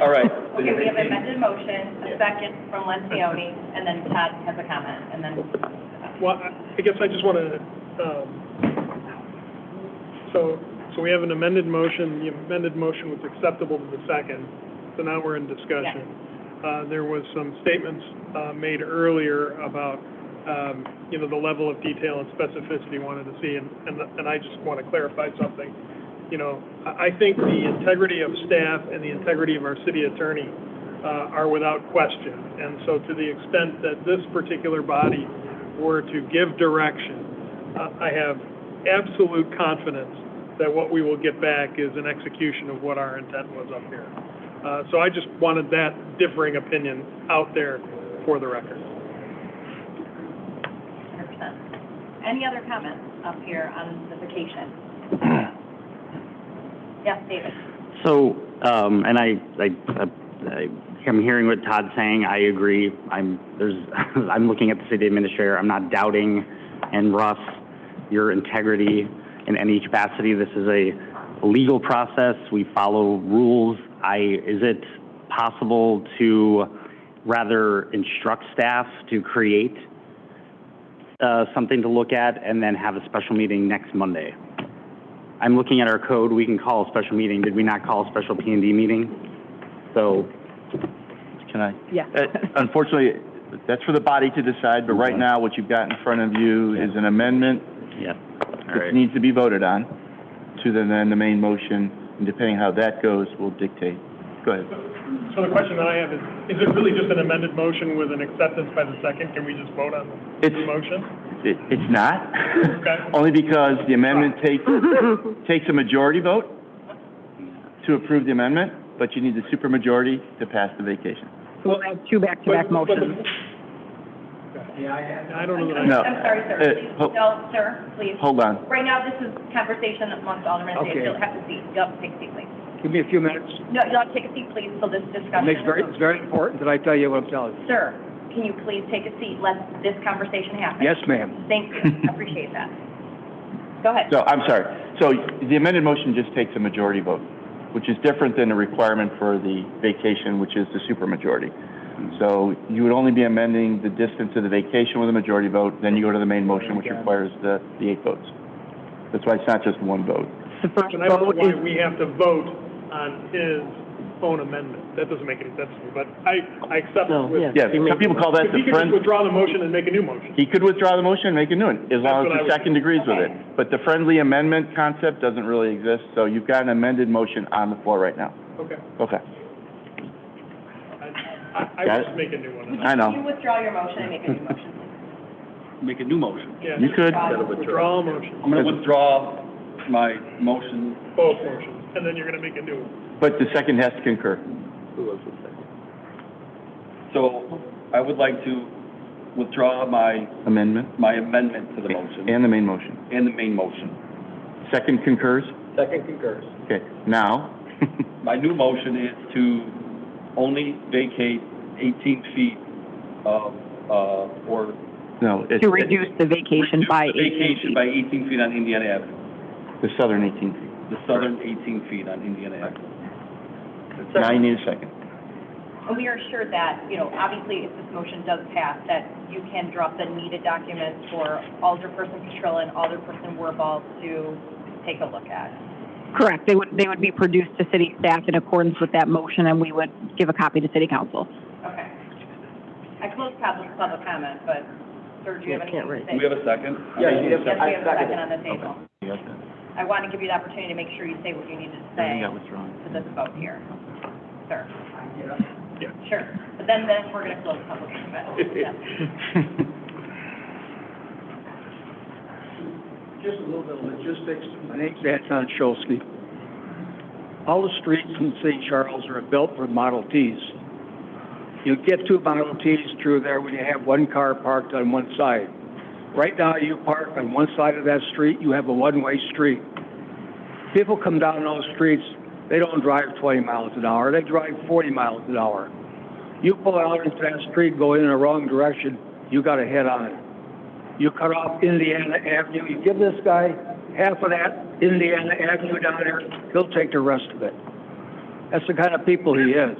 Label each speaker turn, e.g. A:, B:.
A: All right.
B: Okay, we have amended motion, a second from Lencioni, and then Todd has a comment, and then,
C: Well, I I guess I just want to, um, so, so we have an amended motion, the amended motion was acceptable to the second, so now we're in discussion. Uh, there was some statements, uh, made earlier about, um, you know, the level of detail and specificity wanted to see, and, and, and I just want to clarify something. You know, I, I think the integrity of staff and the integrity of our city attorney, uh, are without question. And so to the extent that this particular body were to give direction, uh, I have absolute confidence that what we will get back is an execution of what our intent was up here. Uh, So I just wanted that differing opinion out there for the record.
B: hundred percent. Any other comments up here on the vacation? Yes, David?
D: So, um, and I, I, I am hearing what Todd's saying, I agree, I'm, there's, I'm looking at the city administrator, I'm not doubting, and Russ, your integrity in any capacity, this is a legal process, we follow rules, I, is it possible to rather instruct staff to create, uh, something to look at and then have a special meeting next Monday? I'm looking at our code, we can call a special meeting, did we not call a special P and D meeting? So,
A: Can I?
E: Yeah.
A: Uh, Unfortunately, that's for the body to decide, but right now, what you've got in front of you is an amendment
D: yeah, all
A: that
D: right.
A: needs to be voted on to the, then the main motion, and depending how that goes, will dictate. Go ahead.
C: So the question that I have is, is it really just an amended motion with an acceptance by the second? Can we just vote on the
A: It's-
C: motion?
A: It, it's not,
C: Okay.
A: only because the amendment takes, takes a majority vote to approve the amendment, but you need the supermajority to pass the vacation.
E: We'll have two back-to-back
C: But- but the-
E: motions.
C: I don't know that I...
B: I'm
A: No.
B: I'm sorry, sir,
A: Uh,
B: please,
A: ho-
B: no, sir, please.
A: Hold on.
B: Right now, this is conversation amongst aldermen, so you'll have to seat, you'll have to take a seat, please.
F: Give me a few minutes.
B: No, you'll have to take a seat, please, till this discussion.
F: It's very,
B: is
F: it's very important that I tell you what I'm telling
B: over.
F: you.
B: Sir, can you please take a seat, let this conversation happen?
F: Yes, ma'am.
B: Thank you, appreciate that. Go ahead.
A: So, I'm sorry. So the amended motion just takes a majority vote, which is different than the requirement for the vacation, which is the supermajority. So you would only be amending the distance of the vacation with a majority vote, then you go to the main motion, which requires the, the eight votes. That's why it's not just one vote.
E: The first
C: And I don't know
E: vote
C: why
E: is,
C: we have to vote on his own amendment. That doesn't make any sense to me, but I, I accept it
E: No,
C: with...
E: yeah.
A: Yeah, some people call that
C: If
A: the
C: he could just
A: friends.
C: withdraw the motion and make a new motion.
A: He could withdraw the motion and make a new one, as long
C: That's what I
A: as the
C: would-
A: second agrees with it. But the friendly amendment concept doesn't really exist, so you've got an amended motion on the floor right now.
C: Okay.
A: Okay,
C: I, I- I
A: Got
C: would
A: it.
C: just make a new one.
A: I
B: Can you
A: know.
B: withdraw your motion and make a new motion, please?
G: make a new motion.
C: Yeah.
A: You could,
C: Withdraw a motion,
G: I'm going to withdraw my motion.
C: both motions, and then you're gonna make a new one.
A: but the second has to concur.
G: So I would like to withdraw my,
A: Amendment
G: my amendment to the motion
A: and the main motion.
G: and the main motion.
A: Second concurs?
G: Second concurs.
A: Okay, now,
G: My new motion is to only vacate 18 feet of, uh, or
A: no, it's
E: to reduce the vacation by
G: the
E: eight
G: vacation by 18 feet on Indiana Avenue,
A: the southern 18 feet.
G: the southern 18 feet on Indiana Avenue.
A: Now you need a second.
B: And we are sure that, you know, obviously, if this motion does pass, that you can drop the needed documents for Alderperson Petrilla and Alderperson Wirball to take a look at.
E: Correct, they would, they would be produced to city staff in accordance with that motion, and we would give a copy to city council.
B: Okay. I closed public, public comment, but, sir, do you have anything to say?
G: Do we have a second?
B: Yes, we have a second on the table. I want to give you the opportunity to make sure you say what you needed to say to this vote here, sir.
C: Yeah.
B: Sure, but then, then we're going to close public comment. Yes.
F: Just a little bit of logistics. My name's Anton Scholsky. All the streets in St. Charles are built with Model Ts. You get two Model Ts through there when you have one car parked on one side. Right now, you park on one side of that street, you have a one-way street. People come down those streets, they don't drive 20 miles an hour, they drive 40 miles an hour. You pull out into that street, go in the wrong direction, you got to head on it you cut off Indiana Avenue, you give this guy half of that Indiana Avenue down there, he'll take the rest of it. That's the kind of people he is.